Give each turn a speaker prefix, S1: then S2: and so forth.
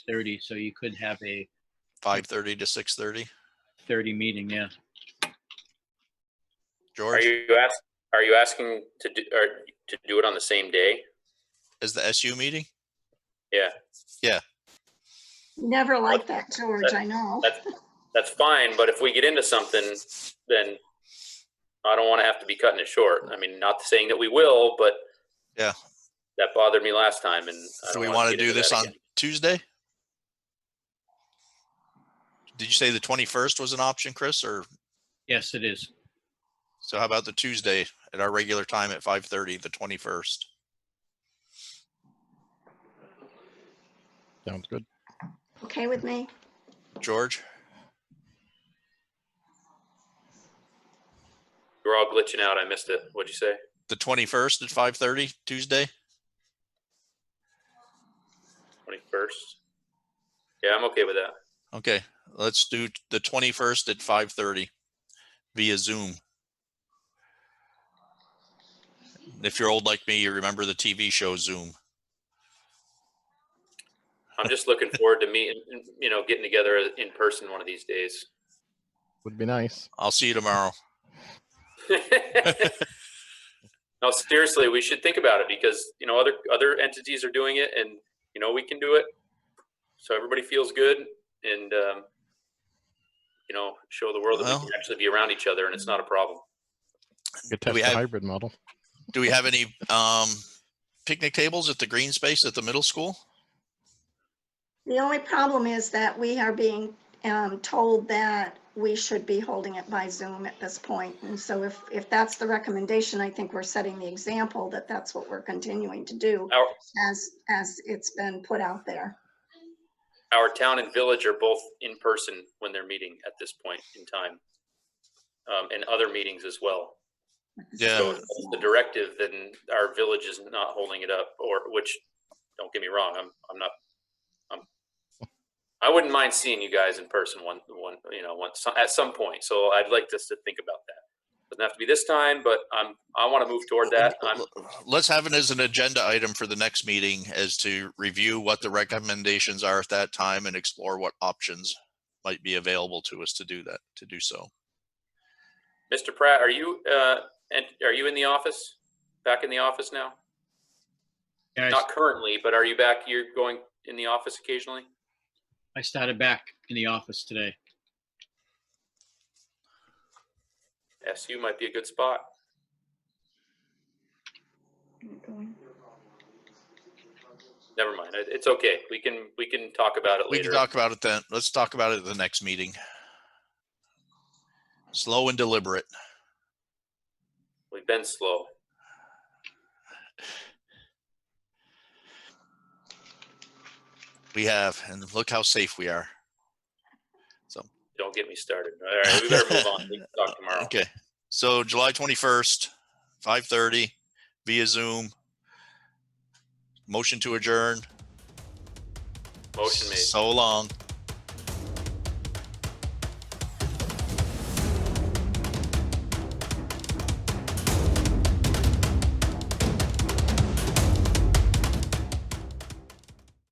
S1: thirty, so you could have a
S2: five
S3: Hmm.
S2: thirty to six thirty.
S1: thirty meeting, yeah.
S3: Are
S2: George,
S3: you ask, are you asking to do, or to do it on the same day?
S2: is the SU meeting?
S4: Never liked that, George, I know.
S3: That's, that's fine, but if we get into something, then I don't want to have to be cutting it short. I mean, not saying that we will, but
S2: Yeah.
S3: That bothered me last time and. I
S2: Do
S3: don't
S2: we
S3: wanna
S2: want to
S3: get
S2: do
S3: into
S2: this
S3: that
S2: on
S3: again.
S2: Tuesday? Did you say the twenty-first was an option, Chris? Or
S1: Yes, it is.
S2: so how about the Tuesday at our regular time at five thirty, the twenty-first?
S5: Sounds good.
S4: Okay with me?
S2: George,
S3: We're all glitching out. I missed it. What'd you say?
S2: the twenty-first at five thirty, Tuesday?
S3: Twenty-first? Yeah, I'm okay with that.
S2: Okay, let's do t- the twenty-first at five thirty via Zoom. If you're old like me, you remember the TV show Zoom.
S3: I'm just looking forward to meeting, you know, getting together in person one of these days.
S5: Would be nice.
S2: I'll see you tomorrow.
S3: no, seriously, we should think about it because you know other other entities are doing it, and you know we can do it. So everybody feels good, and um, you know show the world that
S2: Well-
S3: we can actually be around each other, and it's not a problem.
S5: Could
S2: Do
S5: test
S2: we
S5: the
S2: have-
S5: hybrid model.
S2: Do we have any um picnic tables at the green space at the middle school?
S4: The only problem is that we are being um, told that we should be holding it by Zoom at this point. And so if, if that's the recommendation, I think we're setting the example that that's what we're continuing to do
S3: Our
S4: as, as it's been put out there.
S3: our town and village are both in person when they're meeting at this point in time, um, and other meetings as well. So
S2: Yeah,
S3: if that's the directive, then our village is not holding it up, or, which, don't get me wrong, I'm, I'm not, I'm, I wouldn't mind seeing you guys in person one, one, you know, once, at some point, so I'd like us to think about that. Doesn't have to be this time, but I'm, I want to move toward that, I'm,
S2: let's have it as an agenda item for the next meeting as to review what the recommendations are at that time and explore what options might be available to us to do that, to do so.
S3: Mr. Pratt, are you, uh, and, are you in the office? Back in the office now?
S1: Yeah, I s-
S3: Not currently, but are you back, you're going in the office occasionally?
S1: I started back in the office today.
S3: SU might be a good spot. Never mind. It- It's okay. We can, we can talk about it
S2: We can
S3: later.
S2: talk about it then. Let's talk about it at the next meeting. Slow and deliberate.
S3: We've been slow.
S2: We have, and look how safe we are.
S3: Don't get me started. All right, we better move on. We can talk tomorrow.
S2: Okay, so July twenty-first, five thirty, via Zoom. Motion to adjourn.
S3: Motion made.
S2: So long.